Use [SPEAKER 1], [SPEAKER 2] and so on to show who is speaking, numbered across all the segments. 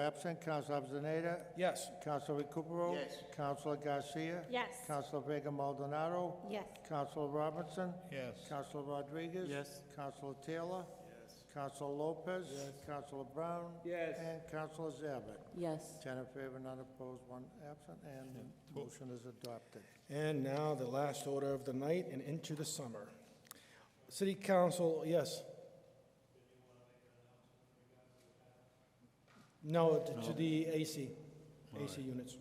[SPEAKER 1] Absent, Councilor Avellaneda.
[SPEAKER 2] Yes.
[SPEAKER 1] Councilor Recupero.
[SPEAKER 2] Yes.
[SPEAKER 1] Councilor Garcia.
[SPEAKER 3] Yes.
[SPEAKER 1] Councilor Vega Maldonado.
[SPEAKER 3] Yes.
[SPEAKER 1] Councilor Robinson.
[SPEAKER 2] Yes.
[SPEAKER 1] Councilor Rodriguez.
[SPEAKER 2] Yes.
[SPEAKER 1] Councilor Taylor. Yes. Councilor Lopez. Yes. Councilor Brown.
[SPEAKER 2] Yes.
[SPEAKER 1] And Councilor Zabit.
[SPEAKER 4] Yes.
[SPEAKER 1] Ten in favor, none opposed, one absent, and the motion is adopted.
[SPEAKER 2] And now the last order of the night and into the summer. City Council, yes. No, to- to the AC, AC units.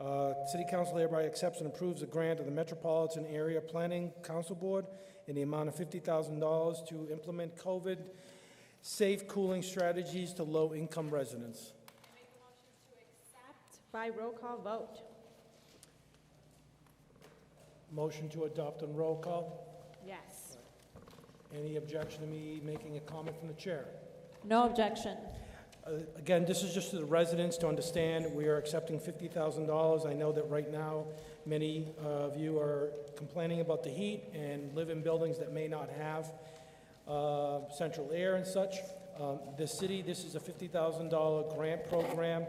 [SPEAKER 2] Uh, City Council hereby accepts and approves a grant of the Metropolitan Area Planning Council Board in the amount of fifty thousand dollars to implement COVID-safe cooling strategies to low-income residents.
[SPEAKER 3] Accept by roll call vote.
[SPEAKER 2] Motion to adopt on roll call.
[SPEAKER 3] Yes.
[SPEAKER 2] Any objection to me making a comment from the chair?
[SPEAKER 4] No objection.
[SPEAKER 2] Uh, Again, this is just to the residents to understand, we are accepting $50,000. I know that right now, many uh, of you are complaining about the heat and live in buildings that may not have uh, central air and such. Um, The city, this is a $50,000 grant program.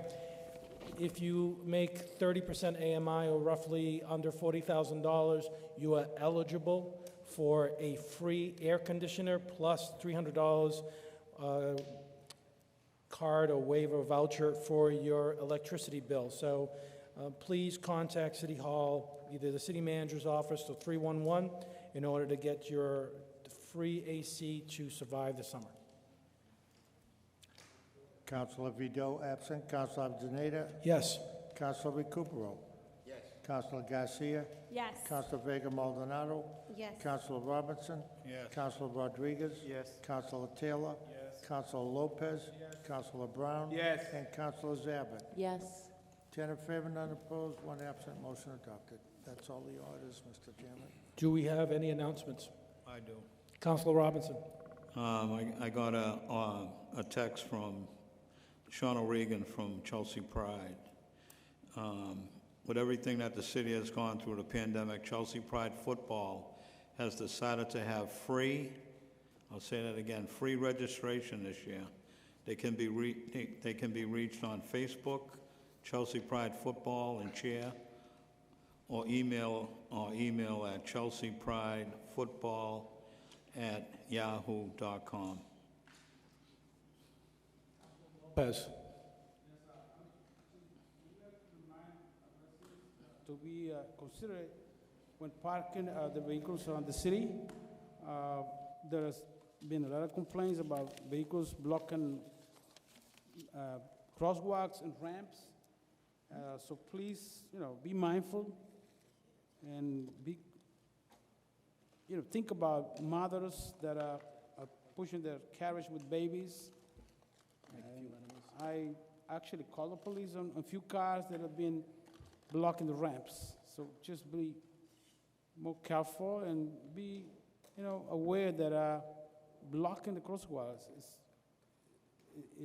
[SPEAKER 2] If you make 30% AMI or roughly under $40,000, you are eligible for a free air conditioner plus $300 uh, card or waiver voucher for your electricity bill. So uh, please contact City Hall, either the city manager's office or 311, in order to get your free AC to survive the summer.
[SPEAKER 1] Councilor Vido absent, Councilor Avellaneda.
[SPEAKER 2] Yes.
[SPEAKER 1] Councilor Recupero. Yes. Councilor Garcia.
[SPEAKER 3] Yes.
[SPEAKER 1] Councilor Vega Maldonado.
[SPEAKER 3] Yes.
[SPEAKER 1] Councilor Robinson. Yes. Councilor Rodriguez. Yes. Councilor Taylor. Yes. Councilor Lopez. Yes. Councilor Brown. Yes. And Councilor Zabit.
[SPEAKER 4] Yes.
[SPEAKER 1] Ten in favor, none opposed, one absent, motion adopted. That's all the orders, Mr. Chairman.
[SPEAKER 2] Do we have any announcements?
[SPEAKER 5] I do.
[SPEAKER 2] Counselor Robinson?
[SPEAKER 5] Um, I, I got a, uh, a text from Sean O'Regan from Chelsea Pride. Um, with everything that the city has gone through the pandemic, Chelsea Pride football has decided to have free, I'll say that again, free registration this year. They can be re, they, they can be reached on Facebook, Chelsea Pride Football and Cheer, or email, or email at chelseapridefootball@yahoo.com.
[SPEAKER 2] Pez.
[SPEAKER 6] to be uh, considerate when parking uh, the vehicles around the city. Uh, There has been a lot of complaints about vehicles blocking uh, crosswalks and ramps. Uh, So please, you know, be mindful and be, you know, think about mothers that are are pushing their carriage with babies. And I actually called the police on a few cars that have been blocking the ramps. So just be more careful and be, you know, aware that uh, blocking the crosswalks is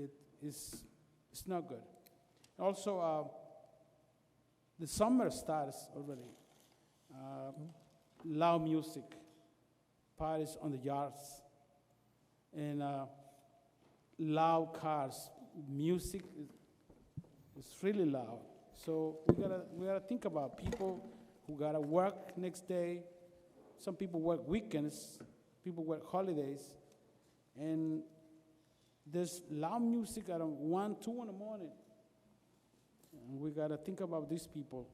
[SPEAKER 6] it is it's not good. Also, uh, the summer starts already. Uh, loud music, parties on the yards, and uh, loud cars. Music is it's really loud. So we gotta, we gotta think about people who gotta work next day. Some people work weekends, people work holidays. And there's loud music at one, two in the morning. And we gotta think about these people.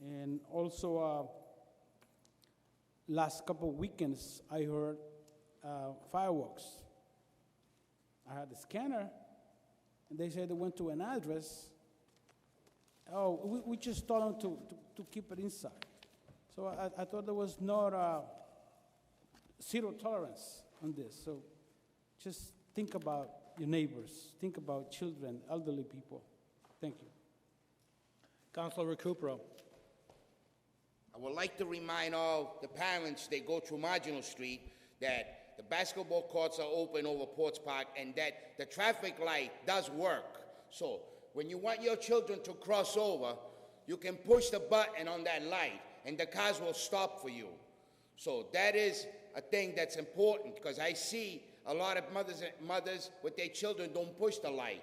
[SPEAKER 6] And also, uh, last couple weekends, I heard uh, fireworks. I had the scanner, and they said they went to an address. Oh, we, we just told them to, to, to keep it inside. So I, I thought there was no uh, zero tolerance on this. So just think about your neighbors, think about children, elderly people. Thank you.
[SPEAKER 2] Counselor Recupero?
[SPEAKER 7] I would like to remind all the parents that go through Marginal Street that the basketball courts are open over Ports Park and that the traffic light does work. So when you want your children to cross over, you can push the button on that light and the cars will stop for you. So that is a thing that's important because I see a lot of mothers, mothers with their children don't push the light.